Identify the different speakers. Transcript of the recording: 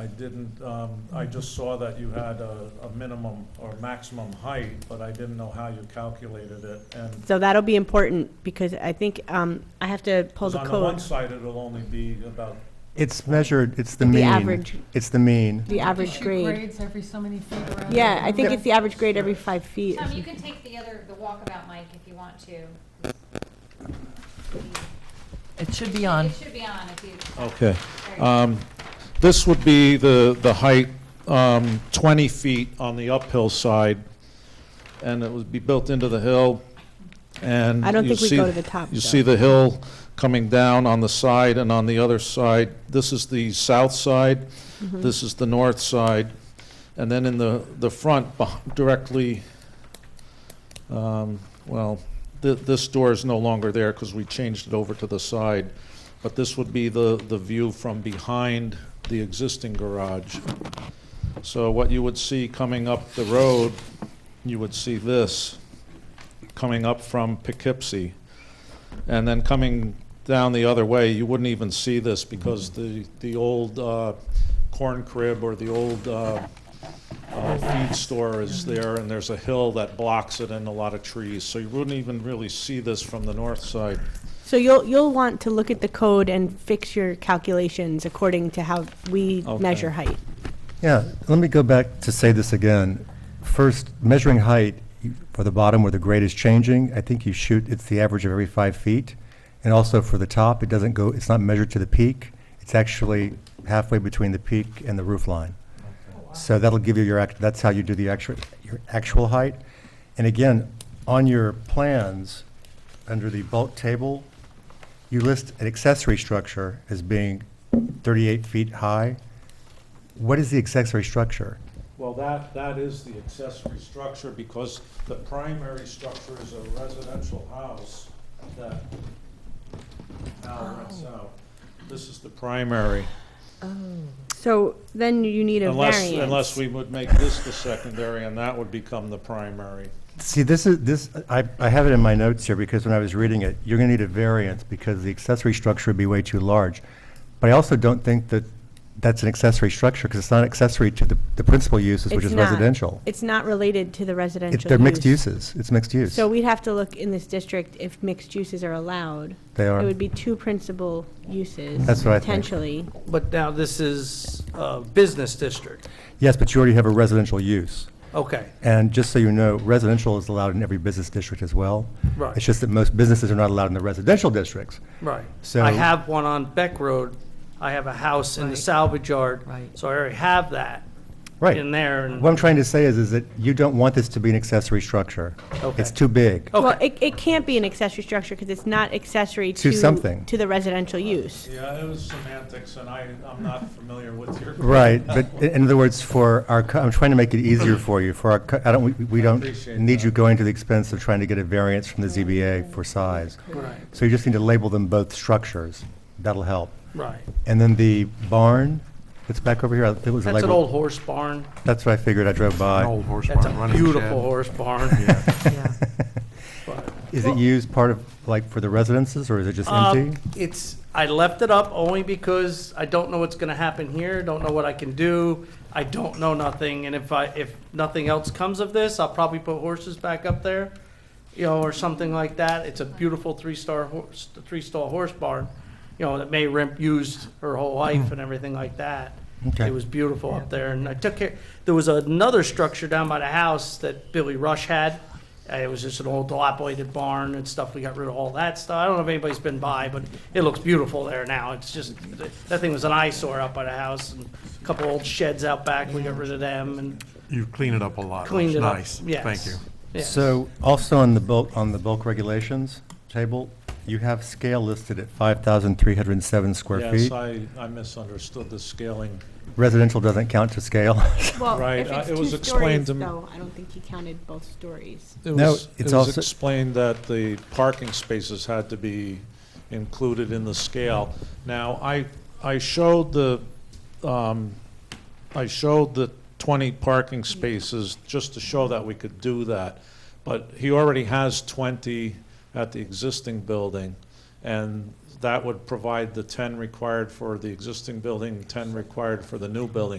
Speaker 1: I didn't, um, I just
Speaker 2: Mm-hmm.
Speaker 1: saw that you had a, a minimum or maximum height, but I didn't know how you calculated it, and.
Speaker 2: So that'll be important, because I think, um, I have to pull
Speaker 1: 'cause
Speaker 2: the
Speaker 1: On the one
Speaker 2: code.
Speaker 1: side, it'll only be about,
Speaker 3: It's measured, it's the
Speaker 2: The
Speaker 3: mean.
Speaker 2: average,
Speaker 3: It's the mean.
Speaker 2: the average
Speaker 4: Shoot
Speaker 2: grade.
Speaker 4: grades every so many feet around.
Speaker 2: Yeah,
Speaker 4: the
Speaker 2: I think
Speaker 4: room.
Speaker 2: it's the average grade every five feet.
Speaker 5: Tom, you can take the other, the walkabout mic if you want to.
Speaker 4: It should be on.
Speaker 5: It should be on if you.
Speaker 1: okay.
Speaker 5: there you go.
Speaker 1: Um, This would be the, the height, um, 20 feet on the uphill side, and it would be built into the hill, and.
Speaker 2: I don't
Speaker 1: you
Speaker 2: think we
Speaker 1: see-
Speaker 2: go to the top,
Speaker 1: You
Speaker 2: though.
Speaker 1: see the hill coming down on the side and on the other side. This is the south side, this is the north side, and then in the, the front, beh- directly, um, well, th- this door is no longer there because we changed it over to the side, but this would be the, the view from behind the existing garage. So what you would see coming up the road, you would see this coming up from Poughkeepsie. And then coming down the other way, you wouldn't even see this because the, the old uh, corn crib or the old uh, uh, feed store is there, and there's a hill that blocks it and a lot of trees. So you wouldn't even really see this from the north side.
Speaker 2: So you'll, you'll want to look at the code and fix your calculations according to how we
Speaker 1: Okay.
Speaker 2: measure height.
Speaker 3: Yeah, let me go back to say this again. First, measuring height you- for the bottom where the grade is changing, I think you shoot, it's the average of every five feet. And also for the top, it doesn't go, it's not measured to the peak. It's actually halfway between the peak and the roof line. So that'll give you your, act. that's how you do the actual, your actual height. And again, on your plans, under the bulk table, you list an accessory structure as being 38 feet high. What is the accessory structure?
Speaker 1: Well, that, that is the accessory structure because the primary structure is a residential house that Al rents out. This is the primary.
Speaker 2: So then you need a
Speaker 1: Unless,
Speaker 2: variance.
Speaker 1: unless we would make this the secondary, and that would become the primary.
Speaker 3: See, this is, this, I, I have it in my notes here because when I was reading it, you're gonna need a variance because the accessory structure would be way too large. But I also don't think that that's an accessory structure because it's not accessory to the, the principal uses, which
Speaker 2: It's
Speaker 3: is
Speaker 2: not-
Speaker 3: residential.
Speaker 2: It's not related to the residential
Speaker 3: It- They're mixed
Speaker 2: use.
Speaker 3: uses. It's mixed use.
Speaker 2: So we'd have to look in this district if mixed uses are allowed.
Speaker 3: They are.
Speaker 2: It would be two principal uses.
Speaker 3: That's what I think.
Speaker 2: Potentially.
Speaker 6: But now this is a business district.
Speaker 3: Yes, but you already have a residential use.
Speaker 6: Okay,
Speaker 3: And just so you know, residential is allowed in every business district as well.
Speaker 6: Right.
Speaker 3: It's just that most businesses are not allowed in the residential districts.
Speaker 6: right.
Speaker 3: So-
Speaker 6: I have one on Beck Road. I have a house in the
Speaker 4: Right.
Speaker 6: salvage yard.
Speaker 4: Right.
Speaker 6: So I already have that
Speaker 3: Right.
Speaker 6: in there. and-
Speaker 3: What I'm trying to say is, is that you don't want this to be an accessory structure.
Speaker 6: Okay. Oh.
Speaker 3: It's too big.
Speaker 2: Well,
Speaker 6: Okay,
Speaker 2: it, it can't be an accessory structure because it's not accessory to.
Speaker 3: To something.
Speaker 2: To the residential use.
Speaker 1: Yeah, it was semantics, and I, I'm not familiar with your.
Speaker 3: Right, but i- in other words, for our, co- I'm trying to make it easier for you, for our, co- I don't, we- we
Speaker 1: I
Speaker 3: don't
Speaker 1: appreciate
Speaker 3: need you
Speaker 1: that.
Speaker 3: going to the expense of trying to get a variance from the ZBA for size.
Speaker 6: right,
Speaker 3: So you just need to label them both structures. That'll help.
Speaker 6: right.
Speaker 3: And then the barn, that's back over here, I think it was a
Speaker 6: That's an
Speaker 3: label-
Speaker 6: old horse barn.
Speaker 3: That's what I figured, I drove by.
Speaker 7: Old horse
Speaker 6: That's
Speaker 7: barn,
Speaker 6: a
Speaker 7: running
Speaker 6: beautiful
Speaker 7: shed.
Speaker 6: horse barn.
Speaker 4: Yeah.
Speaker 6: But-
Speaker 3: Is it used part of, like, for the residences, or is it just
Speaker 6: Um,
Speaker 3: empty?
Speaker 6: It's, I left it up only because I don't know what's gonna happen here, don't know what I can do, I don't know nothing, and if I, if nothing else comes of this, I'll probably put horses back up there, you know, or something like that. It's a beautiful three-star horse, three-stall horse barn, you know, that May Rimp used her whole life and everything like that.
Speaker 3: Okay.
Speaker 6: It was beautiful up there, and I took care, there was another structure down by the house that Billy Rush had. Uh, It was just an old dilapidated barn and stuff, we got rid of all that stuff. I don't know if anybody's been by, but it looks beautiful there now. It's just, that thing was an eyesore out by the house, and a couple old sheds out back, we got rid of them and
Speaker 7: You clean it up a lot.
Speaker 6: cleaned
Speaker 7: It's
Speaker 6: it up.
Speaker 7: nice.
Speaker 6: Yes.
Speaker 7: Thank you.
Speaker 6: Yes.
Speaker 3: So also on the bulk, on the bulk regulations table, you have scale listed at 5,307 square
Speaker 1: Yes,
Speaker 3: feet.
Speaker 1: I, I misunderstood the scaling.
Speaker 3: Residential doesn't count to scale.
Speaker 2: Well,
Speaker 1: Right,
Speaker 2: if
Speaker 1: uh,
Speaker 2: it's
Speaker 1: it
Speaker 2: two
Speaker 1: was explained
Speaker 2: stories
Speaker 1: to me-
Speaker 2: though, I don't think he counted both stories.
Speaker 1: It
Speaker 3: No,
Speaker 1: was-
Speaker 3: it's
Speaker 1: It was
Speaker 3: also-
Speaker 1: explained that the parking spaces had to be included in the scale. Now, I, I showed the, um, I showed the 20 parking spaces just to show that we could do that. But he already has 20 at the existing building, and that would provide the 10 required for the existing building, 10 required for the new building.